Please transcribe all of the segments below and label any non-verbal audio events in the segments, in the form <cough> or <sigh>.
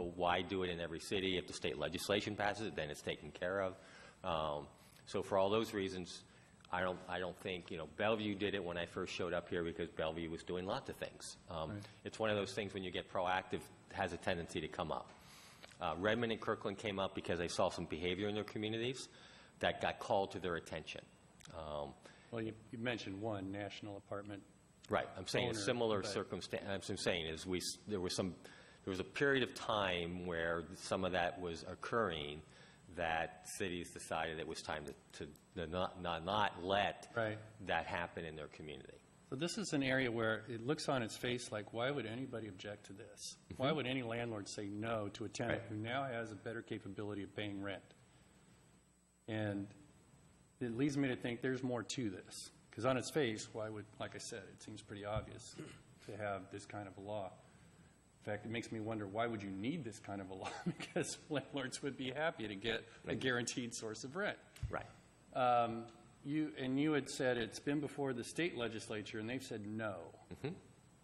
why do it in every city? If the state legislation passes it, then it's taken care of. Um, So for all those reasons, I don't, I don't think, you know, Bellevue did it when I first showed up here because Bellevue was doing lots of things. Um, It's one of those things when you get proactive, has a tendency to come up. Uh, Redmond and Kirkland came up because they saw some behavior in their communities that got called to their attention. Um, Well, you you mentioned one, National Apartment. Right, I'm saying a Owner, similar right. circumstance, I'm saying is we, s- there was some, there was a period of time where some of that was occurring, that cities decided it was time to, to not, not, not let Right. that happen in their community. So this is an area where it looks on its face like, why would anybody object to this? Why would any landlord say no to a tenant Right. who now has a better capability of paying rent? And it leads me to think there's more to this, because on its face, why would, like I said, it seems pretty obvious to have this kind of a law. In fact, it makes me wonder, why would you need this kind of a law? <laughs> Because landlords would be happy to get a guaranteed source of rent. Right. Um, You, and you had said it's been before the state legislature, and they've said no.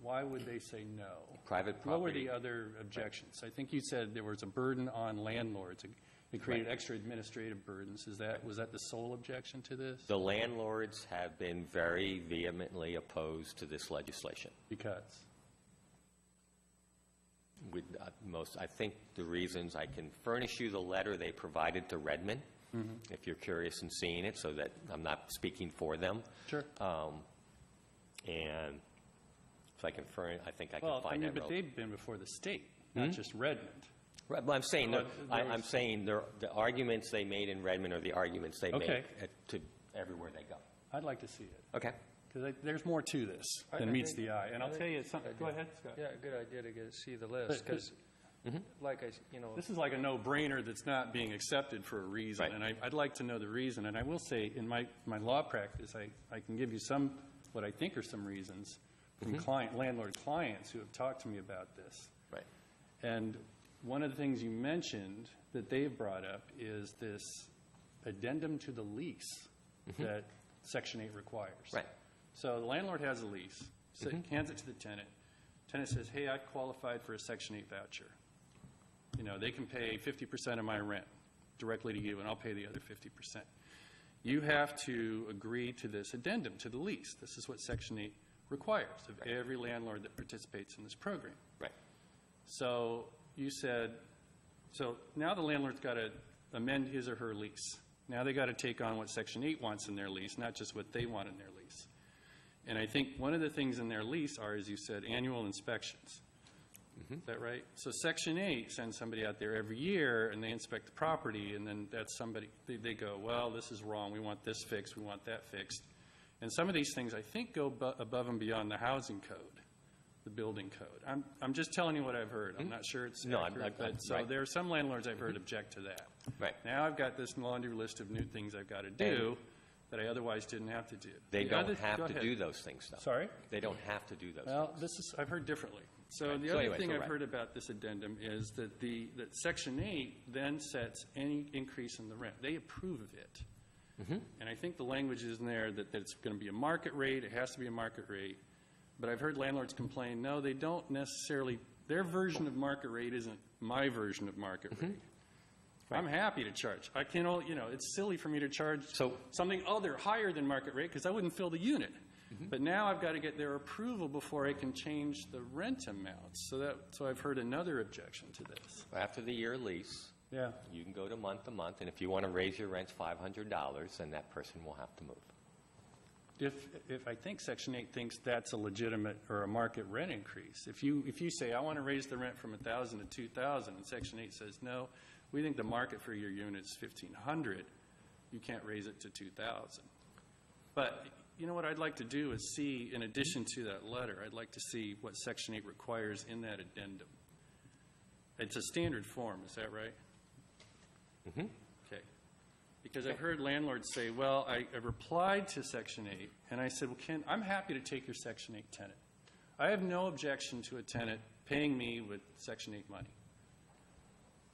Why would they say no? Mm-hmm. Private What were the property. other objections? I think you said there was a burden on landlords. It- It created extra administrative burdens. Is that, was that the sole objection to this? The landlords have been very vehemently opposed to this legislation. Because, with uh, most, I think the reasons, I can furnish you the letter they provided to Redmond, Mm-hmm. if you're curious in seeing it, so that I'm not speaking for them. sure. Um, And if I can furnish, I think I can Well, I find Mm-hmm. mean, that. but rel- they've been before the state, not just Redmond. Right, but I'm saying, Well, they're- there I- I'm was- saying they're- the arguments they made in Redmond are the arguments they make Okay. at- to everywhere they go. I'd like to see it, Okay. because there's more to this I- than I meets think- the eye. And I'll I tell you think- something, go ahead, Scott. Yeah, good idea to get, see the list, But- because, like I, s- you know, This is like a no-brainer that's not being accepted for a reason. Right. And I, I'd like to know the reason. And I will say, in my, my law practice, I, I can give you some, what I think are some reasons from client, landlord clients who have talked to me about this. Right. And one of the things you mentioned that they've brought up is this addendum to the lease that Section 8 requires. Right. So the landlord has a lease, so hands it to the tenant. Tenant says, hey, I qualified for a Section 8 voucher. You know, they can pay 50% of my rent directly to you, and I'll pay the other 50%. You have to agree to this addendum to the lease. This is what Section 8 requires of every landlord that participates in this program. Right. So you said, so now the landlord's got to amend his or her lease. Now they got to take on what Section 8 wants in their lease, not just what they want in their lease. And I think one of the things in their lease are, as you said, annual inspections. Mm-hmm. Is that right? So Section 8 sends somebody out there every year, and they inspect the property, and then that's somebody, they, they go, well, this is wrong, we want this fixed, we want that fixed. And some of these things, I think, go bu- above and beyond the housing code the building code. I'm, I'm just telling you what I've heard. I'm not sure it's Mm-hmm. No, I'm- accurate, I'm- I'm- but so right. Mm-hmm. there are some landlords I've heard object to that. Right. Now I've got this laundry list of new things I've got to do that I otherwise didn't have to do. They The don't other- go have to ahead. do those things, though. Sorry? They don't have to do those. Well, this is, I've heard differently. So Right. the So other anyway, thing so I've right. heard about this addendum is that the, that Section 8 then sets any increase in the rent. They approve of it. Mm-hmm. And I think the language is in there that, that it's going to be a market rate, it has to be a market rate. But I've heard landlords complain, no, they don't necessarily, their version of market rate isn't my version of market rate. I'm happy to charge. I can, all you know, it's silly for me to charge So- something other, higher than market rate, because I wouldn't fill the unit. But now I've got to get their approval before I can change the rent amounts. So that, so I've heard another objection to this. After the year lease, Yeah. You can go to month to month, and if you want to raise your rents $500, then that person will have to move. If, if I think Section 8 thinks that's a legitimate or a market rent increase, if you, if you say, I want to raise the rent from 1,000 to 2,000, and Section 8 says, no, we think the market for your unit is 1,500, you can't raise it to 2,000. But, you know what I'd like to do is see, in addition to that letter, I'd like to see what Section 8 requires in that addendum. It's a standard form, is that right? Okay. Because I've heard landlords say, well, I I replied to Section 8, and I said, well, Ken, I'm happy to take your Section 8 tenant. I have no objection to a tenant paying me with Section 8 money.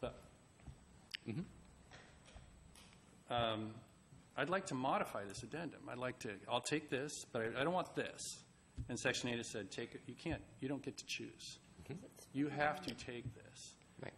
But, Um, I'd like to modify this addendum. I'd like to, I'll take this, but I I don't want this. And Section 8 has said, take, it. you can't, you don't get to choose. You have to take this.